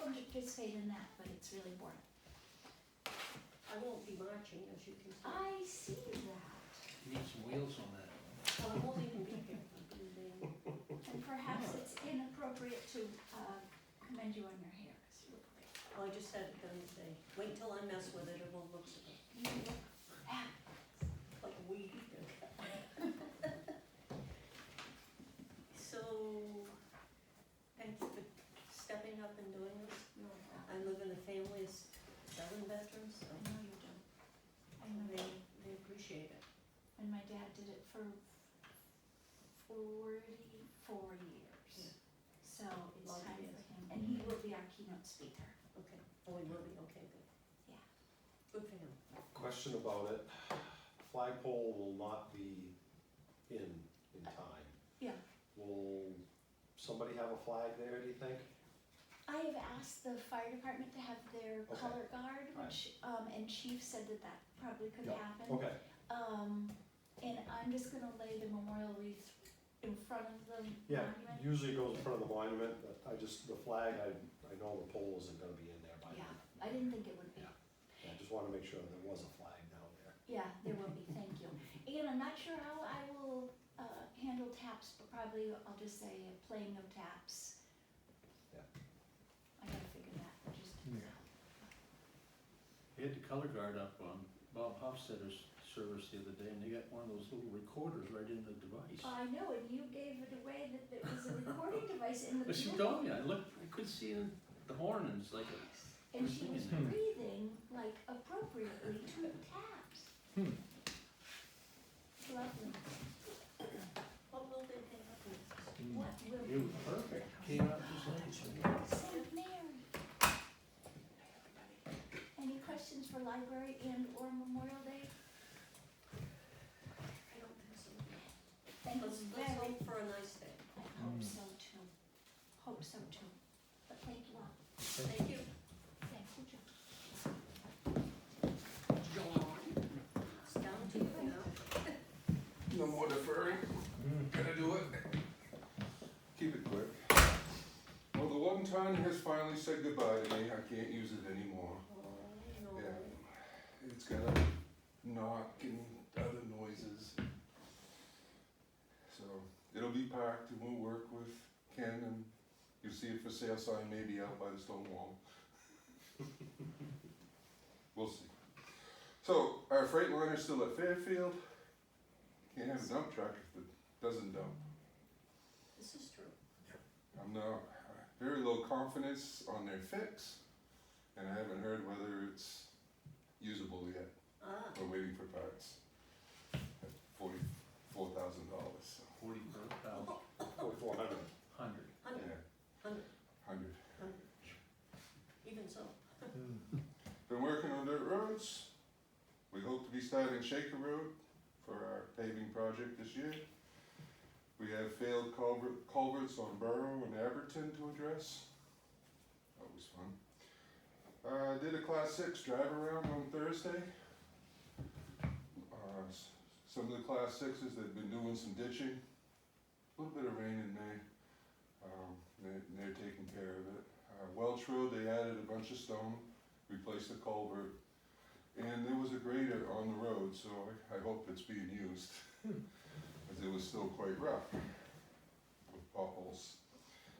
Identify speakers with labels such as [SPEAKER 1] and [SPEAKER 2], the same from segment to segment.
[SPEAKER 1] participate in that, but it's really boring.
[SPEAKER 2] I won't be marching, as you can see.
[SPEAKER 1] I see that.
[SPEAKER 3] You Need some wheels on that.
[SPEAKER 2] Well, I won't even be there. I'll be there.
[SPEAKER 1] And perhaps it's inappropriate to uh, commend you on your hair, 'cause you look great.
[SPEAKER 2] Oh, I just said it the other day. Wait till I mess with it, it won't look so good.
[SPEAKER 1] You look fab.
[SPEAKER 2] Like weed. So, thank you for stepping up and doing this.
[SPEAKER 1] You're welcome.
[SPEAKER 2] I live in a family of seven veterans, so
[SPEAKER 1] I know you do. I know you
[SPEAKER 2] they,
[SPEAKER 1] do.
[SPEAKER 2] they appreciate it.
[SPEAKER 1] And my dad did it for forty-four years. So it's
[SPEAKER 2] Long
[SPEAKER 1] time for
[SPEAKER 2] years.
[SPEAKER 1] him, and he will be our keynote speaker.
[SPEAKER 2] Okay, oh, we will be, okay, good.
[SPEAKER 1] Yeah.
[SPEAKER 2] Good for him.
[SPEAKER 4] Question about it, flagpole will not be in, in time.
[SPEAKER 1] Yeah.
[SPEAKER 4] Will somebody have a flag there, do you think?
[SPEAKER 1] I have asked the fire department to have their
[SPEAKER 4] Okay.
[SPEAKER 1] color guard,
[SPEAKER 4] Right.
[SPEAKER 1] which, um, and chief said that that probably could
[SPEAKER 4] Yeah.
[SPEAKER 1] happen.
[SPEAKER 4] Okay,
[SPEAKER 1] Um, and I'm just gonna lay the memorial wreath in front of the
[SPEAKER 4] yeah,
[SPEAKER 1] monument.
[SPEAKER 4] usually it goes in front of the monument, but I just, the flag, I, I know the pole isn't gonna be in there by then.
[SPEAKER 1] I didn't think it would be.
[SPEAKER 4] Yeah. I just wanna make sure there was a flag down there.
[SPEAKER 1] Yeah, there will be, thank you. And I'm not sure how I will, uh, handle taps, but probably I'll just say playing of taps.
[SPEAKER 4] Yeah.
[SPEAKER 1] I gotta figure that, just.
[SPEAKER 3] Yeah. He had the color guard up on Bob Hofstadter's service the other day, and they got one of those little recorders right in the device.
[SPEAKER 1] I know, and you gave it away that there was a recording device in the
[SPEAKER 3] But she
[SPEAKER 1] middle.
[SPEAKER 3] told me, I looked, I could see the- the horn, and it's like, a-
[SPEAKER 1] And she was
[SPEAKER 3] Hmm.
[SPEAKER 1] breathing like appropriately to taps.
[SPEAKER 4] Hmm.
[SPEAKER 1] Lovely.
[SPEAKER 2] What will they think of this?
[SPEAKER 1] What will
[SPEAKER 3] it was perfect, came out just like.
[SPEAKER 1] Saint Mary? Any questions for library and or Memorial Day?
[SPEAKER 2] I don't think so.
[SPEAKER 1] Thank you
[SPEAKER 2] Let's, let's
[SPEAKER 1] very,
[SPEAKER 2] hope for a nice day.
[SPEAKER 1] I hope so too. Hope so too. But thank you all.
[SPEAKER 2] Thank you.
[SPEAKER 1] Thank you, John.
[SPEAKER 2] It's down to you now.
[SPEAKER 5] No more deferring. Gotta do it. Mm. Keep it quick. Well, the one time has finally said goodbye to me. I can't use it anymore.
[SPEAKER 2] Oh,
[SPEAKER 5] Yeah.
[SPEAKER 2] no.
[SPEAKER 5] It's got a knock and other noises. So it'll be parked and we'll work with Ken and you'll see it for sale sign maybe out by the stone wall. we'll see. So our freight liner's still at Fairfield. Can't have a dump truck if it doesn't dump.
[SPEAKER 2] This is true.
[SPEAKER 5] I'm not very low confidence on their fix, and I haven't heard whether it's usable yet.
[SPEAKER 2] Ah,
[SPEAKER 5] We're waiting for parts. Forty-four thousand dollars, so,
[SPEAKER 3] Forty-four thousand,
[SPEAKER 4] Forty-four hundred.
[SPEAKER 3] hundred.
[SPEAKER 5] yeah.
[SPEAKER 2] hundred, hundred,
[SPEAKER 5] Hundred.
[SPEAKER 2] hundred. Even so,
[SPEAKER 3] Hmm.
[SPEAKER 5] Been working on dirt roads. We hope to be starting Shaker Road for our paving project this year. We have failed culvert, culverts on Borough and Aberton to address. Always fun. Uh, did a class six drive around on Thursday. Uh, s- some of the class sixes, they've been doing some ditching. A little bit of rain in May. Um, they, they're taking care of it. Uh, Welch Road, they added a bunch of stone replace the culvert. And there was a grader on the road, so I, I hope it's being used, as it was still quite rough with potholes.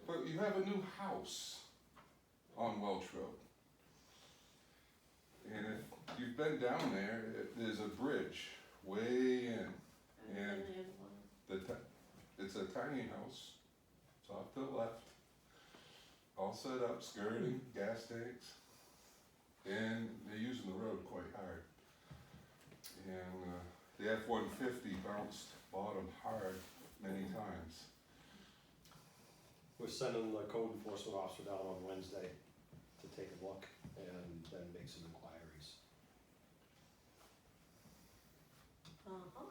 [SPEAKER 5] But you have a new house on Welch Road. And if you've been down there, it- there's a bridge way in.
[SPEAKER 2] and
[SPEAKER 5] Yeah.
[SPEAKER 2] then there's one.
[SPEAKER 5] The ti- it's a tiny house, it's off to the left, all set up, skirting, gas tanks, and they're using the road quite hard. And uh, the F one fifty bounced bottom hard many times.
[SPEAKER 4] We're sending the code enforcement officer down on Wednesday to take a look and then make some inquiries.
[SPEAKER 2] Uh-huh.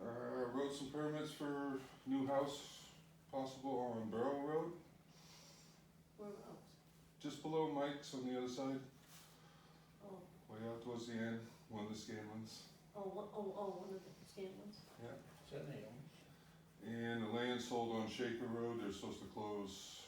[SPEAKER 5] Uh, wrote some permits for new house possible on Borough Road,
[SPEAKER 2] Where else?
[SPEAKER 5] just below Mike's on the other side,
[SPEAKER 2] Oh,
[SPEAKER 5] way out towards the end, one of the Scanlons.
[SPEAKER 2] oh, one- oh, oh, one of the scant ones.
[SPEAKER 3] Is that Naomi?
[SPEAKER 5] And the land sold on Shaker Road, they're supposed to close